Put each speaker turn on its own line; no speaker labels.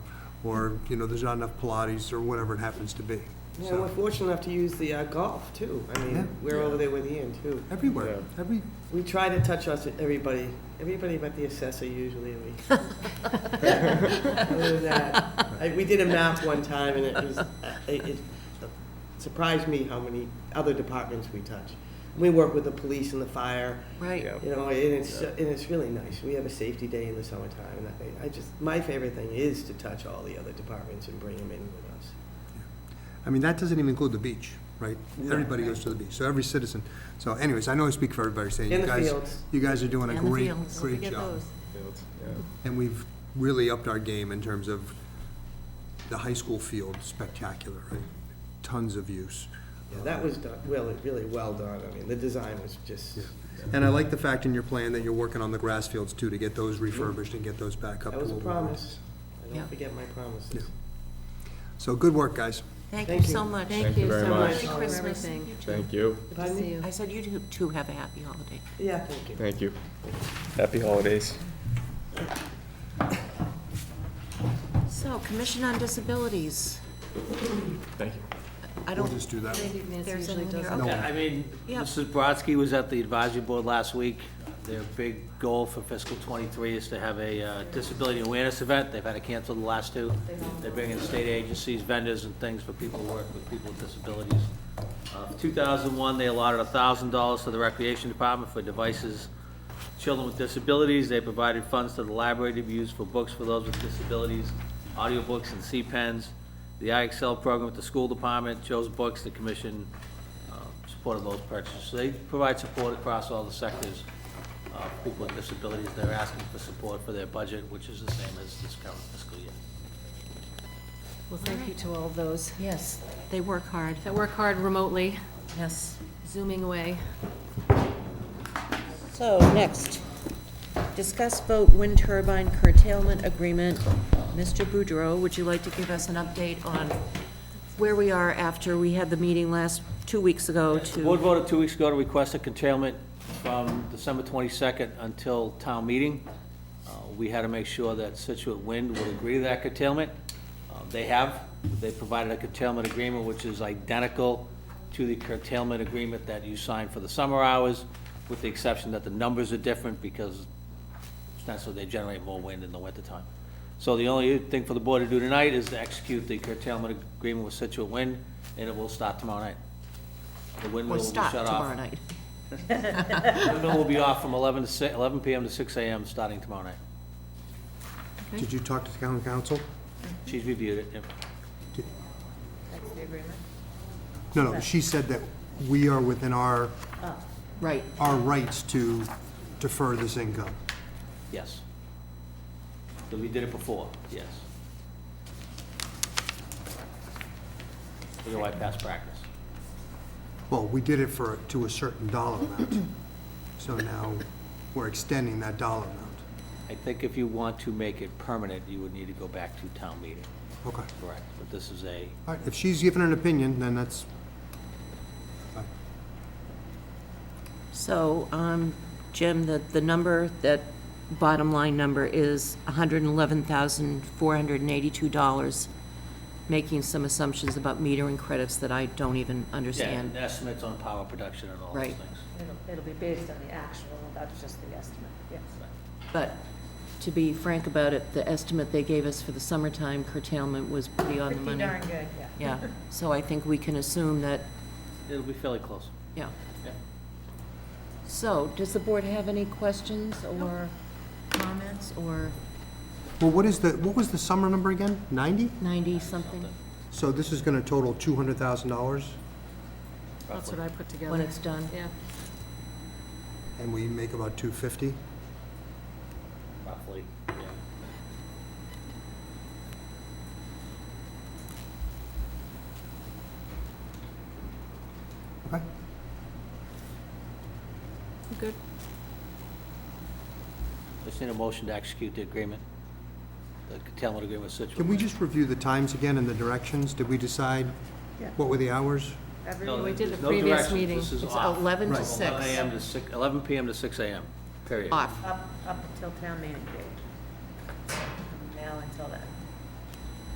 or, you know, there's not enough Pilates, or whatever it happens to be.
Yeah,
So,
we're fortunate enough to use the uh, golf too. I
Yeah.
mean, we're over there with Ian too.
Everywhere, every,
We try to touch us, everybody, everybody but the assessor usually. we- Other than that, I- We did a math one time and it was, uh, it it surprised me how many other departments we touch. We work with the police and the fire,
Right.
you know, and it's, and it's really nice. We have a safety day in the summertime and I- I just, my favorite thing is to touch all the other departments and bring them in with us.
I mean, that doesn't even include the beach, right?
No.
Everybody goes to the beach, so every citizen. So anyways, I know I speak for everybody saying,
In
you
the
guys,
fields.
you guys are doing a
And the
great,
fields. Don't
great
forget
job.
those.
Fields, yeah.
And we've really upped our game in terms of the high school field spectacular, right? Tons of use.
Yeah, That was done, really, really well done. I mean, the design was just,
Yeah. And I like the fact in your plan that you're working on the grass fields too, to get those refurbished and get those back up. to
that was a
what we wanted.
promise. I
Yeah.
don't forget my promises.
So good work, guys.
Thank you
Thank
so
you.
much.
Thank you very much.
Merry Christmas.
Thank you,
Pardon me?
I said you two- two have a happy holiday.
Yeah, thank you.
thank you. Happy holidays.
So, Commission on Disabilities,
Thank you.
I
We'll
don't,
just do that. one.
there's anyone here,
No.
okay.
Yeah, I mean,
Yeah.
Mrs. Brodsky was at the advisory board last week. Their big goal for fiscal '23 is to have a uh, disability awareness event. They've had to cancel the last two. They're bringing state agencies, vendors and things for people who work with people with disabilities. Uh, 2001, they allotted $1,000 to the Recreation Department for devices children with disabilities. They provided funds to the library to be used for books for those with disabilities, audiobooks and C-pens. The IXL program at the school department chose books, the commission uh, supported those purchases. So They provide support across all the sectors. uh, People with disabilities, they're asking for support for their budget, which is the same as this current fiscal year.
Well, thank you to all those
Yes, they work hard.
that work hard remotely,
Yes.
zooming away.
So, next, discuss vote wind turbine curtailment agreement. Mr. Boudreau, would you like to give us an update on where we are after we had the meeting last, two weeks ago
The board
to,
voted two weeks ago to request a curtailment from December 22nd until town meeting. Uh, We had to make sure that Situate Wind would agree to that curtailment. Uh, They have, they provided a curtailment agreement which is identical to the curtailment agreement that you signed for the summer hours, with the exception that the numbers are different because it's not so they generate more wind in the wintertime. So the only thing for the board to do tonight is to execute the curtailment agreement with Situate Wind, and it will start tomorrow night. The wind will
or
be shut
stop
off.
tomorrow night?
The Windmill will be off from 11 to 6, 11 PM to 6 AM starting tomorrow night.
Did you talk to the town council?
She's reviewed it, yep.
No, no, she said that we are within our,
Right.
our rights to defer this income.
yes. So we did it before, yes. We go by past practice.
Well, we did it for, to a certain dollar amount. So now we're extending that dollar amount.
I think if you want to make it permanent, you would need to go back to town meeting,
Okay.
correct? But this is a,
All right, if she's given an opinion, then that's,
So, um, Jim, the, the number, that bottom line number is $111,482, making some assumptions about metering credits that I don't even
yeah,
understand.
and estimates on power production and all those
Right.
things.
It'll, it'll be based on the actual, that's just the estimate, yes.
But to be frank about it, the estimate they gave us for the summertime curtailment was pretty on the
Pretty
money.
darn good, yeah.
Yeah, so I think we can assume that,
It'll be fairly close,
yeah.
yeah.
So, does the board have any questions or comments or
well, what is the, what was the summer number again? Ninety?
90-something
So this is gonna total two hundred thousand dollars,
That's what I put together.
when it's done?
Yeah,
and we make about two fifty?
roughly, yeah.
Okay.
good.
Just need a motion to execute the agreement, the curtailment agreement with Situate.
Can we just review the times again and the directions? Did we decide
Yeah.
what were the hours?
Every
No,
week,
did the
there's no
previous
directions.
meeting.
This is
It's
off.
11 to
From
6.
11 a.m. to 6, 11 p.m. to 6 a.m., period.
Off.
up, up until town meeting date. From Now until then.